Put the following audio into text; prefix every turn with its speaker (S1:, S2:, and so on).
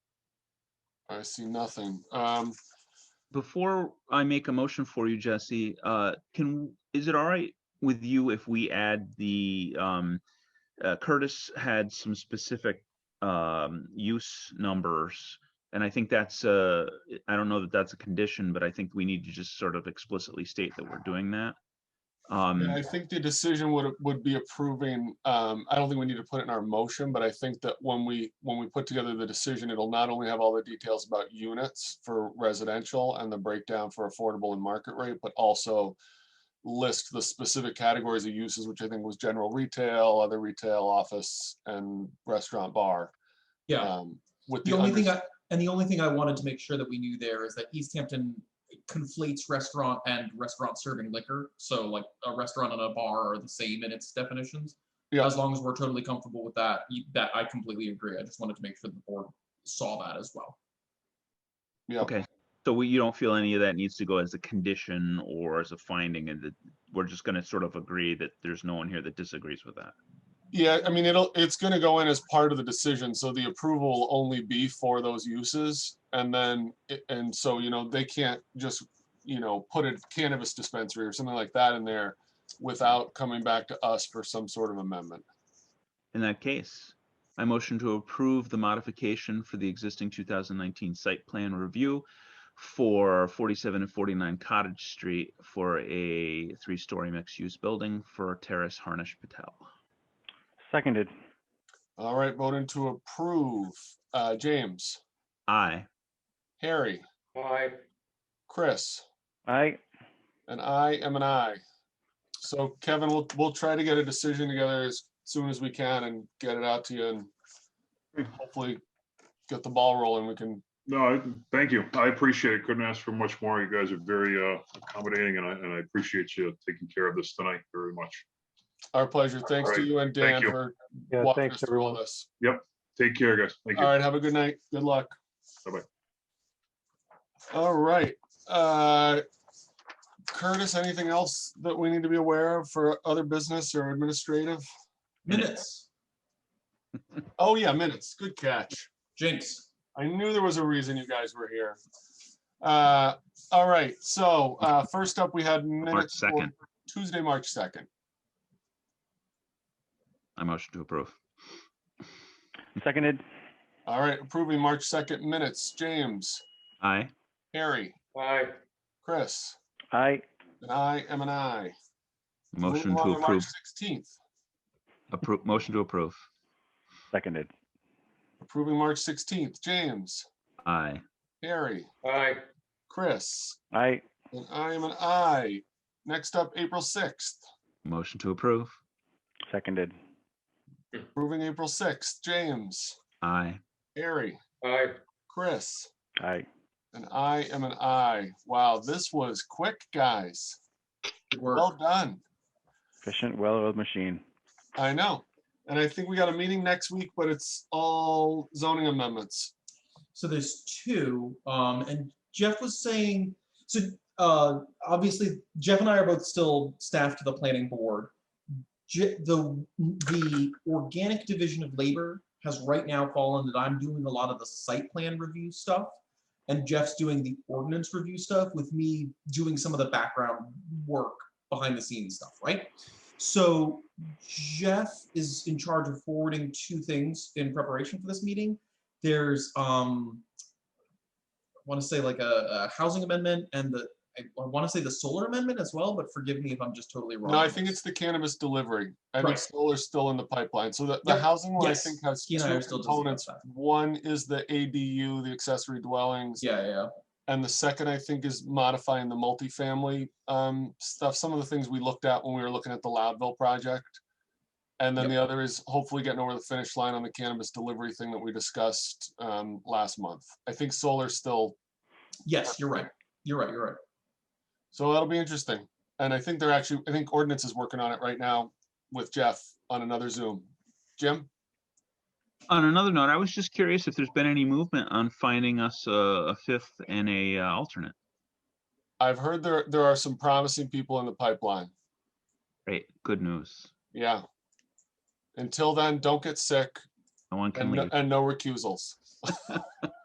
S1: I see nothing. Um,
S2: Before I make a motion for you, Jesse, uh, can, is it all right with you if we add the, um, uh, Curtis had some specific, um, use numbers. And I think that's, uh, I don't know that that's a condition, but I think we need to just sort of explicitly state that we're doing that. Um,
S1: I think the decision would, would be approving, um, I don't think we need to put it in our motion, but I think that when we, when we put together the decision, it'll not only have all the details about units for residential and the breakdown for affordable and market rate, but also list the specific categories of uses, which I think was general retail, other retail, office, and restaurant bar.
S3: Yeah,
S1: um, With
S3: the
S1: the,
S3: only
S1: under-
S3: thing I, and the only thing I wanted to make sure that we knew there is that East Hampton conflates restaurant and restaurant serving liquor. So like a restaurant and a bar are the same in its definitions.
S1: Yeah.
S3: As long as we're totally comfortable with that, you- that I completely agree. I just wanted to make sure the board saw that as well.
S1: yeah,
S2: Okay, so we, you don't feel any of that needs to go as a condition or as a finding and that we're just gonna sort of agree that there's no one here that disagrees with that.
S1: yeah, I mean, it'll, it's gonna go in as part of the decision, so the approval will only be for those uses. And then, it- and so, you know, they can't just, you know, put a cannabis dispensary or something like that in there without coming back to us for some sort of amendment.
S2: In that case, I motion to approve the modification for the existing two thousand nineteen site plan review for forty-seven and forty-nine Cottage Street for a three-story mixed-use building for Terrace Harnish Patel.
S4: Seconded.
S1: All right, voting to approve, uh, James,
S2: Aye.
S1: Harry,
S5: Aye.
S1: Chris,
S4: Aye.
S1: and I am an I. So Kevin, we'll, we'll try to get a decision together as soon as we can and get it out to you and hopefully get the ball rolling. We can
S6: No, I- thank you. I appreciate it. Couldn't ask for much more. You guys are very uh, accommodating and I, and I appreciate you taking care of this tonight very much.
S1: Our pleasure. Thanks to
S6: right.
S1: you and Dan
S6: Thank you.
S1: for
S4: Yeah,
S1: walking us
S4: thanks,
S1: through all
S4: everyone.
S1: this.
S6: Take care, guys. Thank
S1: All
S6: you.
S1: right, have a good night. Good luck.
S6: Bye-bye.
S1: All right, uh, Curtis, anything else that we need to be aware of for other business or administrative?
S2: Minutes.
S3: Minutes,
S1: Oh, yeah, minutes. Good catch.
S3: Jinx.
S1: I knew there was a reason you guys were here. Uh, all right, so, uh, first up, we had minutes. for
S2: 2nd.
S1: Tuesday, March second.
S2: I motion to approve.
S4: Seconded.
S1: All right, approving March second minutes. James,
S2: Aye.
S1: Harry,
S5: Aye.
S1: Chris,
S4: Aye.
S1: and I am an I.
S2: Motion to approve,
S1: Sixteenth.
S2: approve, motion to approve.
S4: Seconded.
S1: Approving March sixteenth, James,
S2: Aye.
S1: Harry,
S5: Aye.
S1: Chris,
S4: Aye.
S1: and I am an I. Next up, April sixth,
S2: Motion to approve.
S4: Seconded.
S1: approving April sixth, James,
S2: Aye.
S1: Harry,
S5: Aye.
S1: Chris,
S4: Aye.
S1: and I am an I. Wow, this was quick, guys.
S3: Good work.
S1: Well done.
S4: Efficient, well-oiled machine.
S1: I know. And I think we got a meeting next week, but it's all zoning amendments.
S3: So there's two, um, and Jeff was saying, so, uh, obviously Jeff and I are both still staff to the planning board. Je- the, the organic division of labor has right now fallen that I'm doing a lot of the site plan review stuff. And Jeff's doing the ordinance review stuff with me doing some of the background work behind the scenes stuff, right? So Jeff is in charge of forwarding two things in preparation for this meeting there's um I want to say like a, a housing amendment and the I, want to say the solar amendment as well, but forgive me if I'm just totally wrong.
S1: No, I
S3: on
S1: think
S3: this.
S1: it's the cannabis delivery. I think
S3: Right.
S1: solar's still in the pipeline. So the, the
S3: Yep.
S1: housing one, I
S3: Yes.
S1: think, has
S3: He
S1: two
S3: and I are still discussing
S1: components.
S3: that.
S1: One is the ADU, the accessory dwellings.
S3: yeah, yeah, yeah.
S1: And the second, I think, is modifying the multifamily um, stuff, some of the things we looked at when we were looking at the Loudville project. And then
S3: Yep.
S1: the other is hopefully getting over the finish line on the cannabis delivery thing that we discussed um, last month. I think solar's still
S3: Yes, you're right. You're right. You're right.
S1: So that'll be interesting. And I think they're actually, I think ordinance is working on it right now with Jeff on another Zoom. Jim?
S2: On another note, I was just curious if there's been any movement on finding us a, a fifth and a uh, alternate.
S1: I've heard there, there are some promising people in the pipeline.
S2: Great, good news.
S1: Yeah. Until then, don't get sick
S2: No one can
S1: and, no-
S2: leave.
S1: and no recusals.